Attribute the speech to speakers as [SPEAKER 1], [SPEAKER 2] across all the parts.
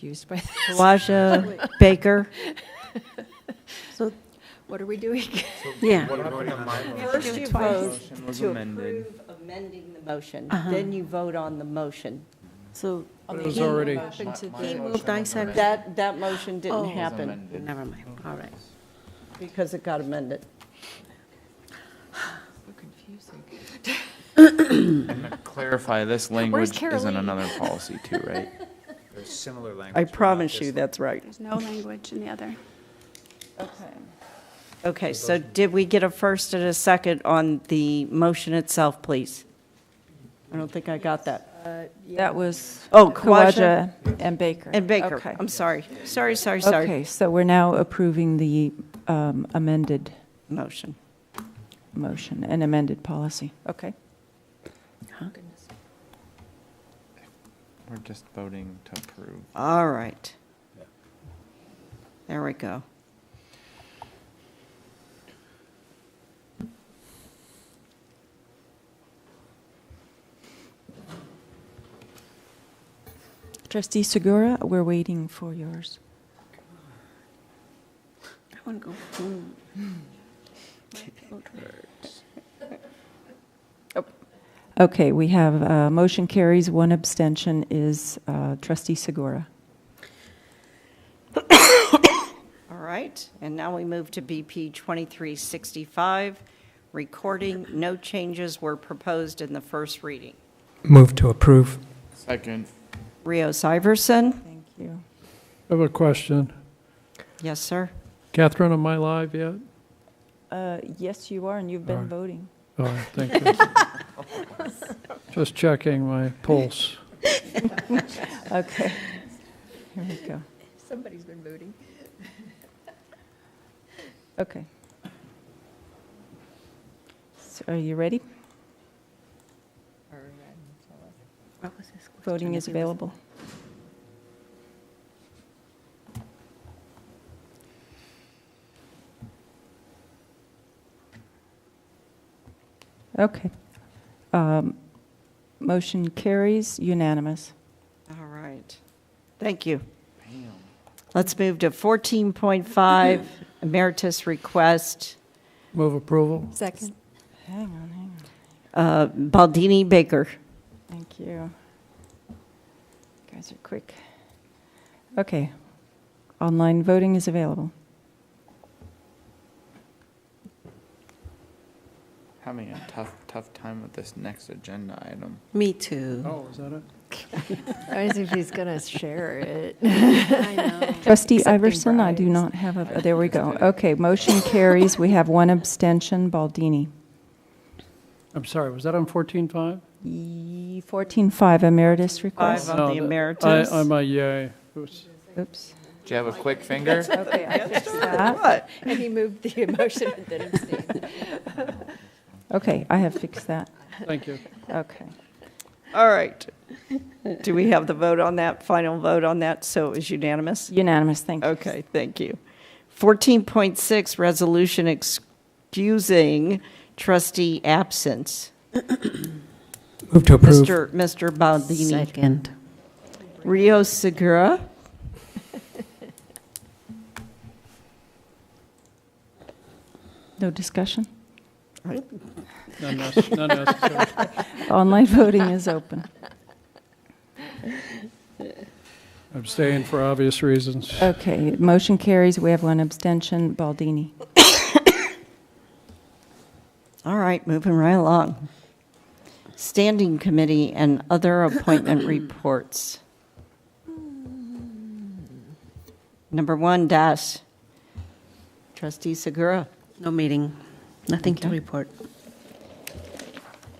[SPEAKER 1] confused by this.
[SPEAKER 2] Kawaja, Baker.
[SPEAKER 3] So,
[SPEAKER 1] What are we doing?
[SPEAKER 3] yeah,
[SPEAKER 1] do
[SPEAKER 3] first
[SPEAKER 1] it
[SPEAKER 3] you
[SPEAKER 1] twice.
[SPEAKER 3] vote
[SPEAKER 4] Motion was
[SPEAKER 3] to
[SPEAKER 4] amended.
[SPEAKER 3] approve amending the motion,
[SPEAKER 2] Uh-huh.
[SPEAKER 3] then you vote on the motion.
[SPEAKER 2] So,
[SPEAKER 1] It
[SPEAKER 5] was already-
[SPEAKER 3] He moved,
[SPEAKER 4] I
[SPEAKER 3] seconded. That, that motion
[SPEAKER 2] Oh.
[SPEAKER 3] didn't
[SPEAKER 2] Was
[SPEAKER 3] happen
[SPEAKER 4] amended.
[SPEAKER 2] never mind, all right.
[SPEAKER 3] because it got amended.
[SPEAKER 1] Confusing.
[SPEAKER 4] Clarify, this language is in
[SPEAKER 1] Caroline?
[SPEAKER 4] another policy too, right?
[SPEAKER 5] There's similar language.
[SPEAKER 3] I
[SPEAKER 5] but not
[SPEAKER 3] promise
[SPEAKER 5] this
[SPEAKER 3] you,
[SPEAKER 5] one.
[SPEAKER 3] that's right.
[SPEAKER 6] There's no language in the other.
[SPEAKER 2] Okay, so did we get a first and a second on the motion itself, please?
[SPEAKER 3] I don't think I got that.
[SPEAKER 7] That was.
[SPEAKER 2] Oh, Kawaja.
[SPEAKER 7] Kawaja And Baker.
[SPEAKER 2] And Baker,
[SPEAKER 7] Okay.
[SPEAKER 2] I'm sorry, sorry, sorry, sorry.
[SPEAKER 7] Okay, so we're now approving the um, amended
[SPEAKER 2] Motion.
[SPEAKER 7] motion and amended policy. Okay.
[SPEAKER 4] We're just voting to approve.
[SPEAKER 2] All right. There we go.
[SPEAKER 7] Trustee Segura, we're waiting for yours.
[SPEAKER 3] I want to go. home.
[SPEAKER 7] Oh. Okay, we have, uh, motion carries, one abstention is uh, trustee Segura.
[SPEAKER 2] All right, and now we move to BP 2365. Recording, no changes were proposed in the first reading.
[SPEAKER 8] Move to approve.
[SPEAKER 4] Second.
[SPEAKER 2] Rios Iverson?
[SPEAKER 7] Thank you.
[SPEAKER 5] I have a question.
[SPEAKER 2] Yes, sir.
[SPEAKER 5] Catherine, am I live yet?
[SPEAKER 7] Uh, Yes, you are, and you've
[SPEAKER 5] All
[SPEAKER 7] been
[SPEAKER 5] right.
[SPEAKER 7] voting.
[SPEAKER 5] Oh, thank you. Just checking my pulse.
[SPEAKER 7] Okay. Here we go.
[SPEAKER 1] Somebody's been voting.
[SPEAKER 7] Okay. So are you ready? Voting is available. Okay. Um, Motion carries unanimous.
[SPEAKER 2] All right. Thank you. Let's move to 14.5, emeritus request,
[SPEAKER 5] Move approval?
[SPEAKER 7] Second. Hang on, hang on.
[SPEAKER 2] uh, Baldini Baker.
[SPEAKER 7] Thank you. You Guys are quick. Okay. Online voting is available.
[SPEAKER 4] Having a tough, tough time with this next agenda item.
[SPEAKER 3] Me too.
[SPEAKER 5] Oh, is that it?
[SPEAKER 9] I was if he's gonna share it.
[SPEAKER 7] Trustee
[SPEAKER 9] Accepting
[SPEAKER 7] Iverson, I do
[SPEAKER 9] bribes.
[SPEAKER 7] not have a, oh, there we go. Okay, motion carries. We have one abstention, Baldini.
[SPEAKER 5] I'm sorry, was that on 14.5?
[SPEAKER 7] Ye- 14.5 E emeritus
[SPEAKER 2] Five uh,
[SPEAKER 7] request.
[SPEAKER 2] on
[SPEAKER 5] No,
[SPEAKER 2] the
[SPEAKER 5] that-
[SPEAKER 2] emeritus.
[SPEAKER 5] I, I'm a yay. Oops.
[SPEAKER 7] Oops.
[SPEAKER 4] Do you have a quick finger?
[SPEAKER 7] Okay, I fixed that.
[SPEAKER 9] And he moved the emotion and then abstained.
[SPEAKER 7] Okay, I have fixed that.
[SPEAKER 5] Thank you.
[SPEAKER 7] Okay.
[SPEAKER 2] All right. Do we have the vote on that, final vote on that, so it was unanimous?
[SPEAKER 7] Unanimous, thank you.
[SPEAKER 2] Okay, thank you. 14.6, resolution excusing trustee absence.
[SPEAKER 8] Move to approve.
[SPEAKER 2] Mr. Mr. Baldini.
[SPEAKER 9] Second.
[SPEAKER 2] Rio Segura.
[SPEAKER 7] No discussion?
[SPEAKER 5] None nece- none necessary.
[SPEAKER 7] Online voting is open.
[SPEAKER 5] I'm staying for obvious reasons.
[SPEAKER 7] Okay, motion carries. We have one abstention, Baldini.
[SPEAKER 2] All right, moving right along. Standing committee and other appointment reports. Number one, Dash. Trustee Segura.
[SPEAKER 3] No meeting, nothing to report.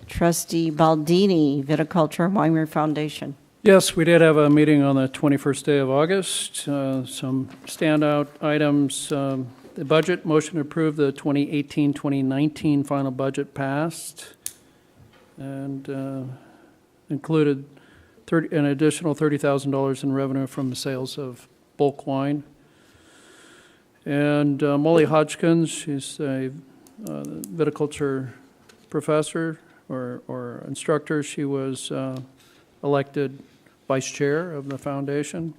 [SPEAKER 2] Trustee Baldini, Viticulture and Winery Foundation.
[SPEAKER 5] Yes, we did have a meeting on the 21st day of August. Uh, Some standout items, um, the budget, motion to approve the 2018-2019 final budget passed, and uh, included 30 an additional $30,000 in revenue from the sales of bulk wine. And uh, Molly Hodgkins, she's a uh, viticulture professor or- or instructor. She was uh, elected vice chair of the foundation.